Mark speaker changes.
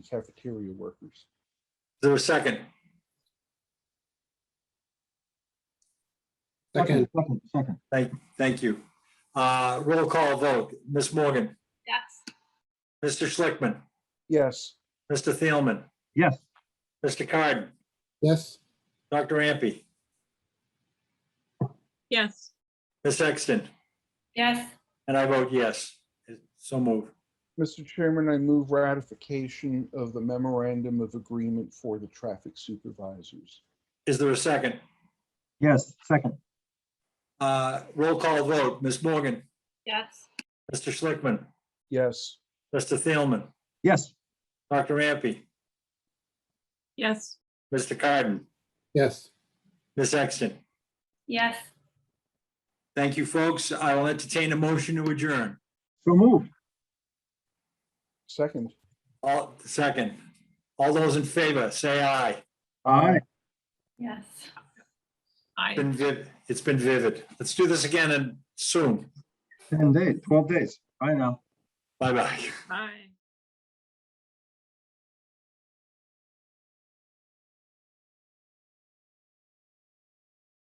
Speaker 1: cafeteria workers.
Speaker 2: there a second?
Speaker 3: Second,
Speaker 1: Second, second.
Speaker 2: Thank, thank you. Uh, Roll call vote, Ms. Morgan,
Speaker 4: yes,
Speaker 2: Mr. Schlickman,
Speaker 1: Yes,
Speaker 2: Mr. Thielman,
Speaker 5: yes,
Speaker 2: Mr. Carden,
Speaker 3: yes,
Speaker 2: Dr. Ampe,
Speaker 6: yes,
Speaker 2: Ms. Sexton,
Speaker 4: yes,
Speaker 2: and I vote yes. So move.
Speaker 1: Mr. Chairman, I move ratification of the memorandum of agreement for the traffic supervisors.
Speaker 2: Is there a second?
Speaker 5: yes, second,
Speaker 2: Uh, Roll call vote, Ms. Morgan,
Speaker 4: yes,
Speaker 2: Mr. Schlickman,
Speaker 1: Yes,
Speaker 2: Mr. Thielman,
Speaker 5: yes,
Speaker 2: Dr. Ampe,
Speaker 6: yes,
Speaker 2: Mr. Carden,
Speaker 3: yes.
Speaker 2: Ms. Sexton.
Speaker 4: yes,
Speaker 2: Thank you, folks. I will entertain a motion to adjourn.
Speaker 5: so moved,
Speaker 1: second.
Speaker 2: All, second. All those in favor, say aye.
Speaker 5: aye.
Speaker 4: yes.
Speaker 6: I.
Speaker 2: Been viv- It's been vivid. Let's do this again and soon.
Speaker 5: 10 days, 12 days. I know.
Speaker 2: Bye-bye.
Speaker 6: Bye.